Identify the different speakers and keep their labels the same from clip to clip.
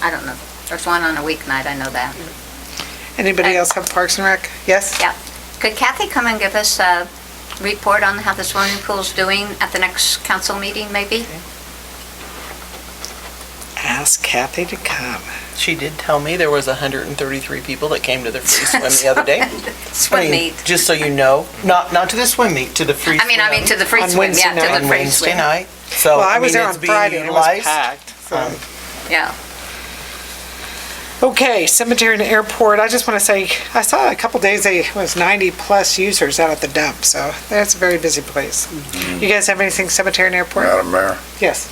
Speaker 1: I don't know. There's one on a weeknight, I know that.
Speaker 2: Anybody else have Parks and Rec? Yes?
Speaker 1: Yeah. Could Kathy come and give us a report on how the swimming pool's doing at the next council meeting, maybe?
Speaker 2: Ask Kathy to come.
Speaker 3: She did tell me there was 133 people that came to the free swim the other day. I
Speaker 1: Swim
Speaker 3: mean,
Speaker 1: meet.
Speaker 3: Just so you know, not, not to the swim meet, to the free
Speaker 1: I mean, I mean, to
Speaker 3: swim
Speaker 1: the free
Speaker 2: On
Speaker 1: swim, yeah,
Speaker 2: Wednesday
Speaker 1: to the
Speaker 3: On
Speaker 1: free
Speaker 3: Wednesday
Speaker 1: swim.
Speaker 3: night. So,
Speaker 2: Well, I was
Speaker 3: Oh,
Speaker 2: there
Speaker 3: mean,
Speaker 2: on
Speaker 3: it's being
Speaker 2: Friday and it was
Speaker 3: utilized.
Speaker 2: packed. so-
Speaker 3: Um,
Speaker 1: Yeah.
Speaker 2: Okay, cemetery and airport, I just want to say, I saw a couple days, they it was 90-plus users out at the dump, so that's a very busy place.
Speaker 3: Mm-hmm.
Speaker 2: You guys have anything cemetery and airport?
Speaker 4: Madam Mayor,
Speaker 2: Yes.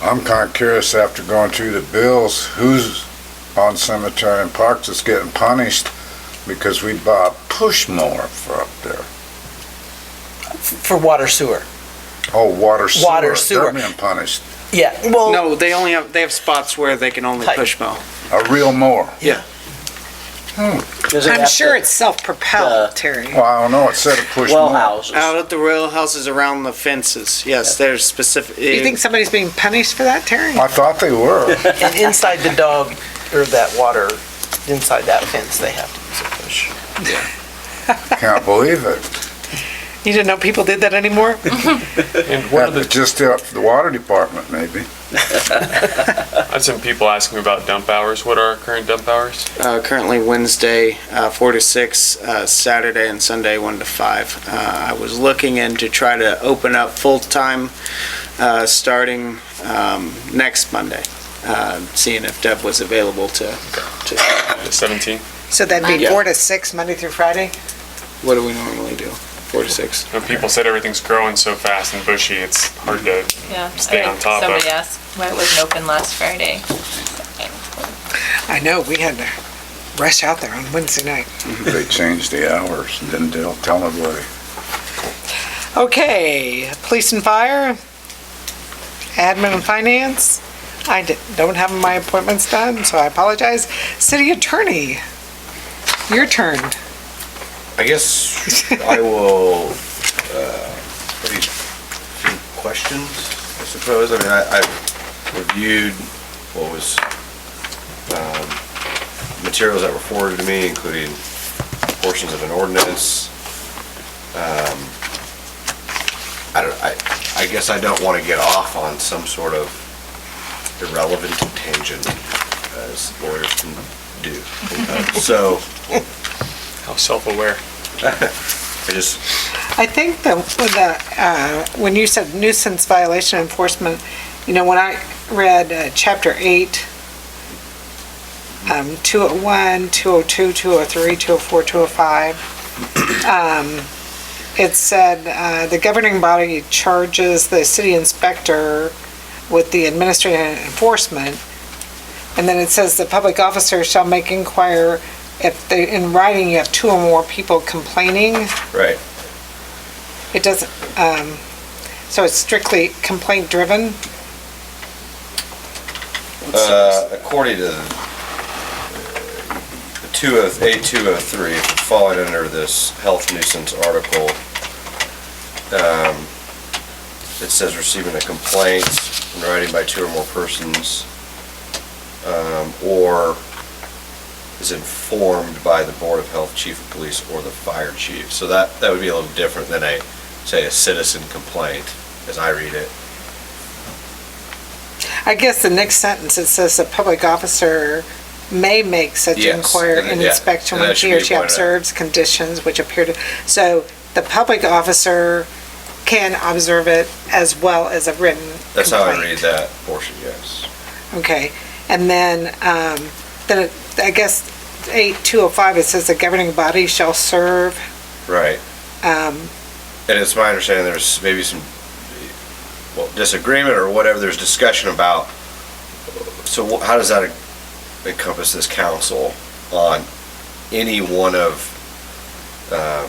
Speaker 4: I'm kind of curious after going through the bills, who's on cemetery and parks that's getting punished because we bought a push mower for up there?
Speaker 3: f- For water sewer.
Speaker 4: Oh, water sewer.
Speaker 3: Water sewer.
Speaker 4: They're being punished.
Speaker 3: Yeah, well,
Speaker 5: No, they only have, they have spots where they can only
Speaker 3: Hi.
Speaker 5: push mow.
Speaker 4: A real mower.
Speaker 6: Does it
Speaker 2: I'm
Speaker 6: have
Speaker 2: sure
Speaker 6: to-
Speaker 2: it's self-propelled, Terry.
Speaker 4: Well, I don't know, it said a push
Speaker 6: Well
Speaker 4: mower.
Speaker 6: houses.
Speaker 2: Oh.
Speaker 5: Out at the rail houses around the fences, yes, there's specific. eh,
Speaker 2: Do you think somebody's being punished for that, Terry?
Speaker 4: I thought they were.
Speaker 3: and inside the dog, or that water, inside that fence, they have to use a push.
Speaker 4: Can't believe it.
Speaker 2: You didn't know people did that anymore?
Speaker 7: And one
Speaker 4: That
Speaker 7: of
Speaker 4: was
Speaker 7: the,
Speaker 4: just out for the water department, maybe.
Speaker 7: I had some people asking about dump hours. What are our current dump hours?
Speaker 5: Uh, currently Wednesday, uh, four to six, uh, Saturday and Sunday, one to five. Uh, I was looking in to try to open up full-time, uh, starting, um, next Monday. Uh, seeing if Deb was available to, to,
Speaker 7: The 17?
Speaker 2: So that'd be
Speaker 5: Yeah.
Speaker 2: four to six, Monday through Friday?
Speaker 5: what do we normally do? Four to six?
Speaker 7: You know, people said everything's growing so fast and bushy, it's hard to
Speaker 8: Yeah, I
Speaker 7: Stay on
Speaker 8: think
Speaker 7: top of.
Speaker 8: Somebody asked, why it wasn't open last Friday?
Speaker 2: I know, we had to rush out there on Wednesday night.
Speaker 4: They changed the hours and then they'll tell nobody.
Speaker 2: Okay, police and fire, admin and finance. I di- don't have my appointments done, so I apologize. City attorney, your turn.
Speaker 9: I guess I will, uh, maybe a few questions, I suppose. I mean, I, I've reviewed what was, um, materials that were forwarded to me, including portions of an ordinance. Um, I don't, I, I guess I don't want to get off on some sort of irrelevant tangent as lawyers can do. Uh, So
Speaker 7: how self-aware.
Speaker 9: I just,
Speaker 2: I think the, the, uh, when you said nuisance violation enforcement, you know, when I read uh, chapter eight, um, 201, 202, 203, 204, 205, um, it said, uh, the governing body charges the city inspector with the administrative enforcement. And then it says the public officer shall make inquire if they, in writing, you have two or more people complaining.
Speaker 9: right.
Speaker 2: It doesn't, um, so it's strictly complaint driven?
Speaker 9: Uh, according to the 20, A203, falling under this health nuisance article, um, it says receiving a complaint in writing by two or more persons, um, or is informed by the Board of Health, Chief of Police, or the Fire Chief. So that, that would be a little different than a, say, a citizen complaint, as I read it.
Speaker 2: I guess the next sentence, it says the public officer may make such
Speaker 9: Yes,
Speaker 2: inquiry
Speaker 9: and
Speaker 2: and
Speaker 9: yeah,
Speaker 2: inspection
Speaker 9: and
Speaker 2: when
Speaker 9: that should
Speaker 2: he or
Speaker 9: be
Speaker 2: she
Speaker 9: pointed out.
Speaker 2: observes conditions which appear to, so the public officer can observe it as well as a written complaint.
Speaker 9: That's how I read that portion, yes.
Speaker 2: Okay, and then, um, then it- I guess eight, two oh five, it says the governing body shall serve,
Speaker 9: Right.
Speaker 2: um,
Speaker 9: And it's my understanding there's maybe some, well, disagreement or whatever, there's discussion about, so wh- how does that encompass this council on any one of, um,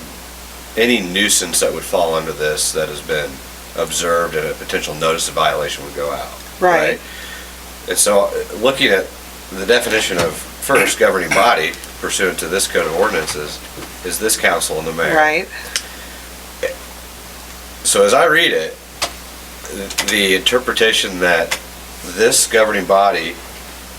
Speaker 9: any nuisance that would fall under this that has been observed and a potential notice of violation would go out?
Speaker 2: right,
Speaker 9: And so, uh, looking at the definition of first governing body pursuant to this code of ordinances, is this council and the mayor.
Speaker 2: right,
Speaker 9: So as I read it, the interpretation that this governing body